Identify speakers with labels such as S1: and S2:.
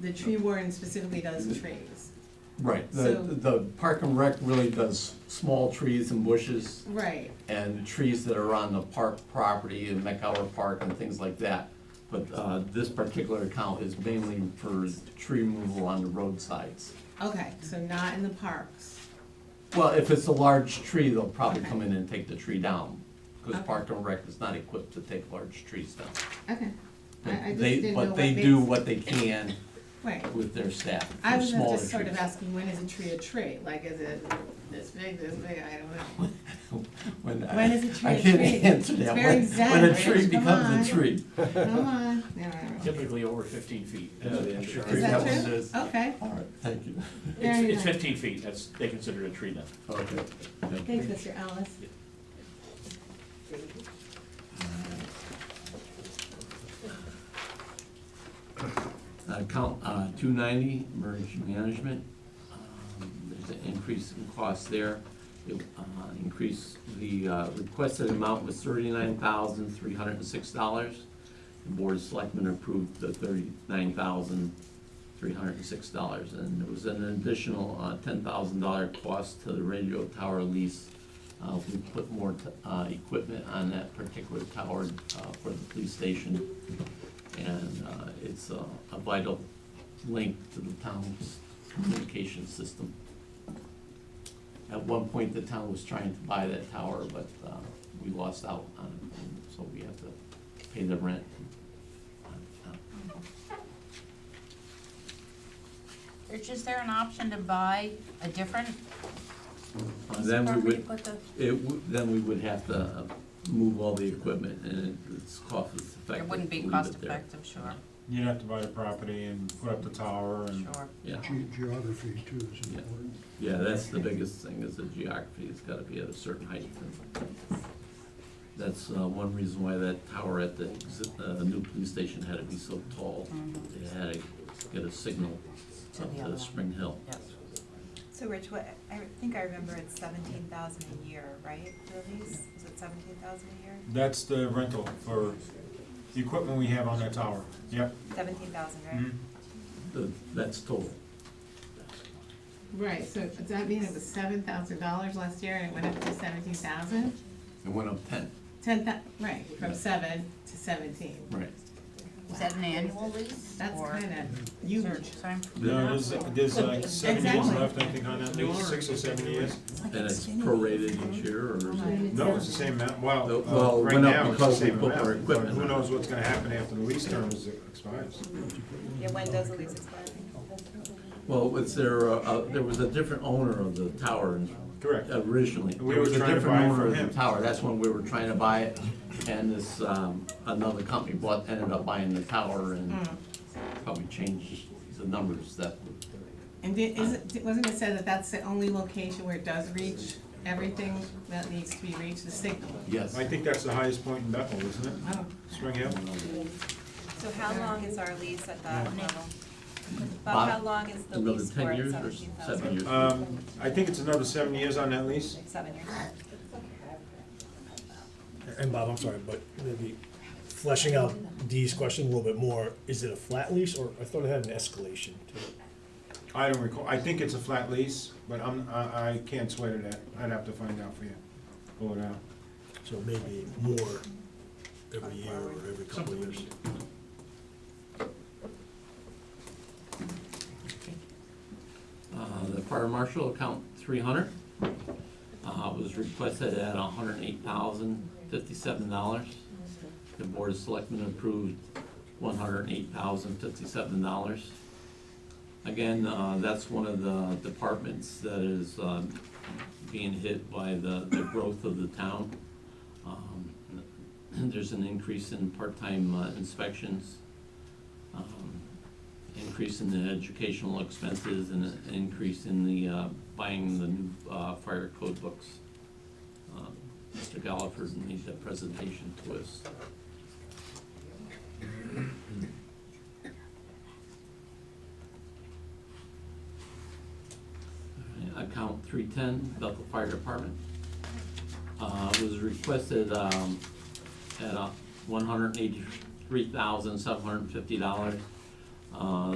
S1: the tree warden specifically
S2: Mm-hmm.
S1: does trees.
S2: Right, the,
S1: So-
S2: the park and rec really does small trees and bushes
S1: Right,
S2: and trees that are on the park property in McCower Park and things like that. But, uh, this particular account is mainly for tree removal on the roadsides.
S1: okay, so not in the parks.
S2: Well, if it's a large tree, they'll probably
S1: Okay.
S2: come in and take the tree down, cause
S1: Okay.
S2: park and rec is not equipped to take large trees down.
S1: Okay. I, I just
S2: They-
S1: didn't know what
S2: But they
S1: makes.
S2: do what they can
S1: Right.
S2: with their staff, for
S1: I was
S2: smaller
S1: just sort of
S2: trees.
S1: asking, when is a tree a tree? Like, is it this big, this big? I don't know.
S2: When, I-
S1: When is a tree
S2: I
S1: a
S2: can't
S1: tree?
S2: answer
S1: It's
S2: that.
S1: very
S2: When, when a
S1: exact.
S2: tree
S1: Come on.
S2: becomes a tree.
S1: Come on. No, no, no.
S3: Typically over fifteen feet.
S4: Yeah, the
S3: I'm sure
S4: insurance.
S1: Is
S3: that
S1: that
S3: one
S1: true?
S3: is-
S1: Okay.
S2: All right, thank you.
S3: It's,
S1: Very
S3: it's
S1: nice.
S3: fifteen feet, that's, they consider it a tree now.
S2: Okay. yeah.
S1: Thanks, Mr. Ellis.
S2: Account Uh, two ninety, emergency management. Um, There's an increase in cost there. It, uh, Increase, the uh, requested amount was thirty-nine thousand, three hundred and six dollars. The Board of Selectmen approved the thirty-nine thousand, three hundred and six dollars. And there was an additional uh, ten thousand dollar cost to the radio tower lease. Uh, We put more t- uh, equipment on that particular tower uh, for the police station. And uh, it's a a vital link to the town's communication system. At one point, the town was trying to buy that tower, but uh, we lost out on it, and so we have to pay the rent.
S5: Is just there an option to buy a different
S2: Uh,
S5: piece of
S2: Then we
S5: property,
S2: would,
S5: put the,
S2: it, would- then we would have to move all the equipment, and it's cost effective.
S5: it wouldn't be
S2: to leave
S5: cost
S2: it there.
S5: effective, sure,
S6: You'd have to buy the property and put up the tower
S2: Um,
S6: and
S5: sure.
S2: Yeah,
S7: Ge- Geography too is
S2: Yeah.
S7: important.
S2: yeah, that's the biggest thing, is the geography, it's gotta be at a certain height. That's uh, one reason why that tower at the exi- uh, new police station had to be so tall.
S5: Mhm.
S2: It had to get a signal
S5: To
S2: up
S5: the other
S2: to
S5: one.
S2: Spring Hill.
S5: Yes.
S8: So Rich, what, I think I remember it's seventeen thousand a year, right, for a lease? Is it seventeen thousand a year?
S6: that's the rental for the equipment we have on that tower. Yep.
S8: Seventeen thousand,
S2: Mm-hmm.
S8: right?
S6: Mhm.
S2: The- That's total.
S1: Right, so does that mean it was seven thousand dollars last year and it went up to seventeen thousand?
S2: It went up ten.
S1: Ten thou, right, from seven to seventeen.
S2: Right.
S5: Is that an annual lease
S1: That's
S5: or
S1: kinda huge.
S5: search? So I'm-
S6: No, there's, there's like seven years
S1: Exactly.
S6: left, I think, on that lease, six or seven years.
S2: And it's prorated each year, or is it?
S6: No, it's the same amount, well,
S2: No,
S6: uh,
S2: well, it
S6: right
S2: went up
S6: now, it's the
S2: because we
S6: same
S2: put our
S6: amount, but
S2: equipment
S6: who
S2: on.
S6: knows what's gonna happen after the lease term is expires.
S2: Mm-hmm.
S8: Yeah, when does the lease expire?
S2: Well, was there, a- a- there was a different owner of the tower in
S6: Correct.
S2: originally.
S6: We
S2: There
S6: were
S2: was a
S6: trying to
S2: different
S6: buy it
S2: owner
S6: from
S2: of the
S6: him.
S2: Tower, that's when we were trying to buy it, and this, um, another company bought, ended up buying the tower and
S8: Hmm.
S2: probably changed the numbers that,
S1: And did, is it, di- wasn't it said that that's the only location where it does reach everything that needs to be reached, the signal?
S2: yes.
S6: I think that's the highest point in Bethel, isn't it?
S1: Oh,
S6: Spring Hill?
S8: So how long is our lease at that level? About
S2: About
S8: how long is the
S2: Another
S8: lease for
S2: ten
S8: at
S2: years or
S8: seventeen thousand?
S2: seven years?
S6: Um, I think it's another seven years on that lease.
S8: Like seven years.
S4: And Bob, I'm sorry, but maybe fleshing out Dee's question a little bit more, is it a flat lease or, I thought it had an escalation to it?
S6: I don't recall, I think it's a flat lease, but I'm, I, I can't swear to that, I'd have to find out for you, uh, pull it out.
S4: So maybe more every year or every couple of years.
S2: Uh, The fire marshal account three hundred Uh, was requested at hundred and eight thousand fifty-seven dollars. The board of selectmen approved one hundred and eight thousand fifty-seven dollars. Again, uh, that's one of the departments that is um, being hit by the the growth of the town. Um, There's an increase in part-time uh, inspections. Um, increase in the educational expenses and an increase in the, uh, buying the new, uh, fire code books. Um, Mr. Gallagher made that presentation to us. All right, Account three-ten, Bethel Fire Department. Uh, was requested, um, at, uh, one hundred eighty-three thousand, seven hundred and fifty dollars. Uh,